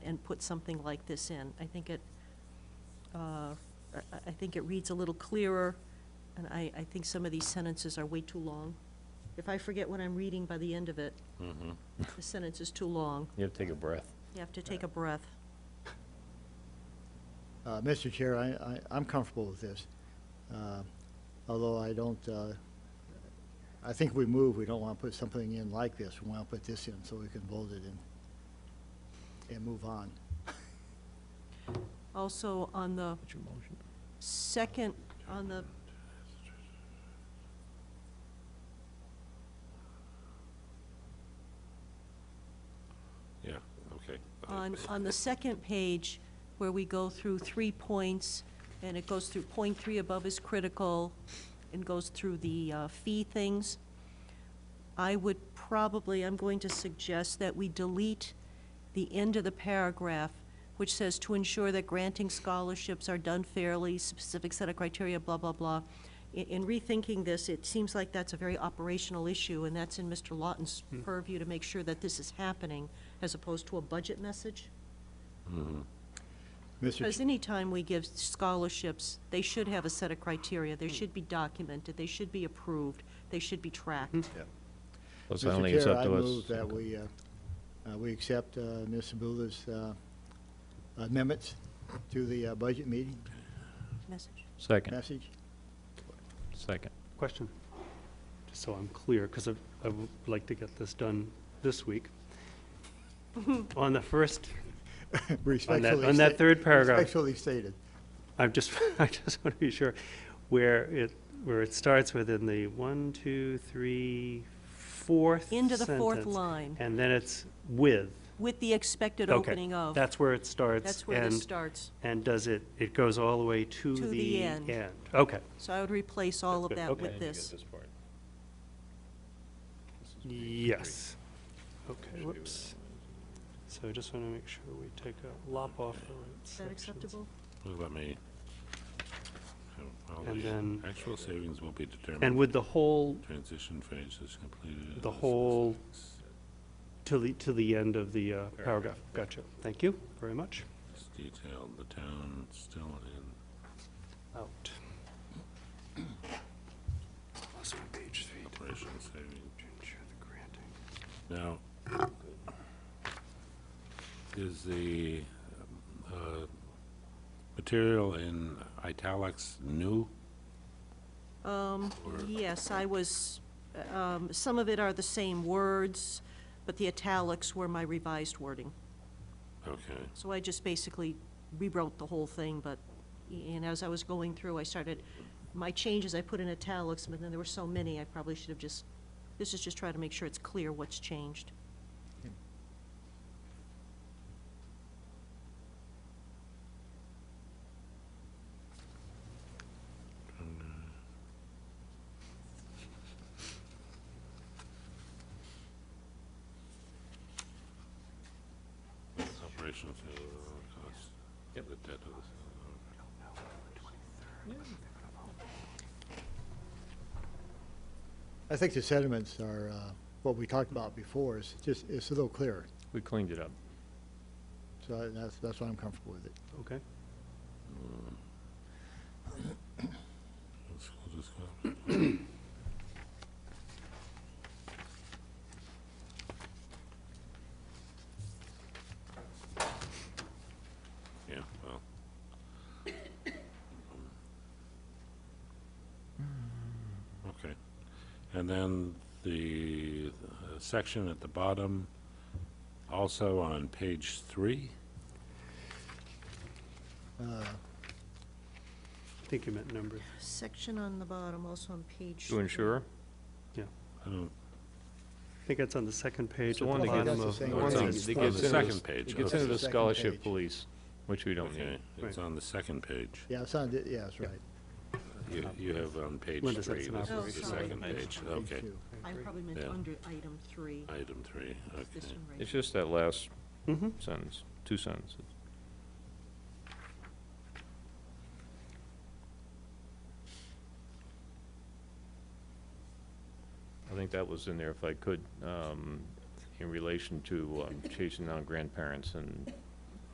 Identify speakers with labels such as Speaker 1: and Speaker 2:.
Speaker 1: put something like this in. I think it, uh, I I think it reads a little clearer, and I, I think some of these sentences are way too long. If I forget what I'm reading by the end of it, the sentence is too long.
Speaker 2: Mm-hmm. You have to take a breath.
Speaker 1: You have to take a breath.
Speaker 3: Uh, Mr. Chair, I, I, I'm comfortable with this, uh, although I don't, uh, I think we move, we don't want to put something in like this, we want to put this in so we can bold it and, and move on.
Speaker 1: Also, on the second, on the,
Speaker 4: Yeah, okay.
Speaker 1: on, on the second page, where we go through three points, and it goes through point three above is critical, and goes through the uh, fee things, I would probably, I'm going to suggest that we delete the end of the paragraph, which says, "To ensure that granting scholarships are done fairly, specific set of criteria, blah, blah, blah." In- In rethinking this, it seems like that's a very operational issue, and that's in Mr. Lawton's purview to make sure that this is happening, as opposed to a budget message.
Speaker 3: Mr.
Speaker 1: Because
Speaker 3: Ch-
Speaker 1: anytime we give scholarships, they should have a set of criteria, they should be documented, they should be approved, they should be tracked.
Speaker 2: Plus, I don't think
Speaker 3: Mr.
Speaker 2: it's
Speaker 3: Chair,
Speaker 2: up
Speaker 3: I
Speaker 2: to us.
Speaker 3: move that we, uh, uh, we accept, uh, Ms. Sabula's, uh, amendments to the, uh, budget meeting
Speaker 1: Message.
Speaker 2: Second,
Speaker 3: message.
Speaker 2: second.
Speaker 5: Question, just so I'm clear, because I I would like to get this done this week. On the first,
Speaker 3: Respectfully
Speaker 5: on that
Speaker 3: sta-
Speaker 5: third paragraph.
Speaker 3: Respectfully stated.
Speaker 5: I'm just, I just want to be sure, where it, where it starts within the one, two, three, fourth
Speaker 1: Into the fourth
Speaker 5: sentence,
Speaker 1: line.
Speaker 5: And then it's with.
Speaker 1: With the expected
Speaker 5: Okay,
Speaker 1: opening of.
Speaker 5: That's where it starts.
Speaker 1: That's where this
Speaker 5: and-
Speaker 1: starts.
Speaker 5: And does it, it goes all the way to the
Speaker 1: To
Speaker 5: end?
Speaker 1: the end.
Speaker 5: Okay.
Speaker 1: So I would replace all of
Speaker 5: Good,
Speaker 1: that
Speaker 5: okay.
Speaker 1: with this.
Speaker 5: Yes. Okay, whoops. So I just want to make sure we take a lop off the right
Speaker 1: Is that acceptable?
Speaker 4: Let me. All
Speaker 5: And
Speaker 4: the
Speaker 5: then-
Speaker 4: Actual savings will be determined.
Speaker 5: And with the whole,
Speaker 4: Transition phase is completed.
Speaker 5: the whole, to the, to the end of the uh, paragraph. Gotcha. Thank you very much.
Speaker 4: It's detailed, the town still in.
Speaker 5: Out. Lost my page three.
Speaker 4: Operation savings.
Speaker 5: To ensure the granting.
Speaker 4: Now, is the uh, material in italics new?
Speaker 1: Um,
Speaker 4: Or-
Speaker 1: yes, I was, um, some of it are the same words, but the italics were my revised wording.
Speaker 4: Okay,
Speaker 1: So I just basically rewrote the whole thing, but, and as I was going through, I started, my changes, I put in italics, but then there were so many, I probably should have just, this is just trying to make sure it's clear what's changed.
Speaker 4: operation savings cost. Yep. The debt of the.
Speaker 3: I think the sentiments are, uh, what we talked about before is just, it's a little clearer.
Speaker 2: We cleaned it up.
Speaker 3: So I- that's, that's why I'm comfortable with it.
Speaker 5: Okay.
Speaker 4: School discount. Yeah, well. Okay, and then the uh, section at the bottom, also on page three,
Speaker 5: I think you meant number.
Speaker 1: Section on the bottom, also on page.
Speaker 2: To ensure?
Speaker 4: I don't,
Speaker 5: I think it's on the second page
Speaker 2: the
Speaker 5: at the
Speaker 2: one that
Speaker 5: bottom
Speaker 3: gets-
Speaker 5: of.
Speaker 3: That's the same
Speaker 5: the
Speaker 3: one
Speaker 2: It
Speaker 3: that
Speaker 2: gets
Speaker 5: second-
Speaker 4: on
Speaker 2: into
Speaker 4: the second
Speaker 2: s-
Speaker 4: page,
Speaker 2: It gets
Speaker 4: okay.
Speaker 2: into the
Speaker 3: Second
Speaker 2: scholarship
Speaker 3: page.
Speaker 2: police, which we don't
Speaker 4: okay,
Speaker 2: need.
Speaker 4: it's
Speaker 5: Right.
Speaker 4: on the second page.
Speaker 3: Yeah, it's on, the- yeah, that's right.
Speaker 4: You, you have on page three,
Speaker 5: Linda
Speaker 4: this
Speaker 5: said
Speaker 4: is
Speaker 5: it's an
Speaker 4: the
Speaker 1: operation. Oh, sorry.
Speaker 4: second page, okay,
Speaker 3: Two.
Speaker 1: I probably meant
Speaker 4: Yeah.
Speaker 1: under item three,
Speaker 4: item three,
Speaker 1: It's
Speaker 4: okay.
Speaker 1: this one right
Speaker 2: It's just that last
Speaker 5: Mhm.
Speaker 2: sentence, two sentences. I think that was in there, if I could, um, in relation to um, chasing down grandparents and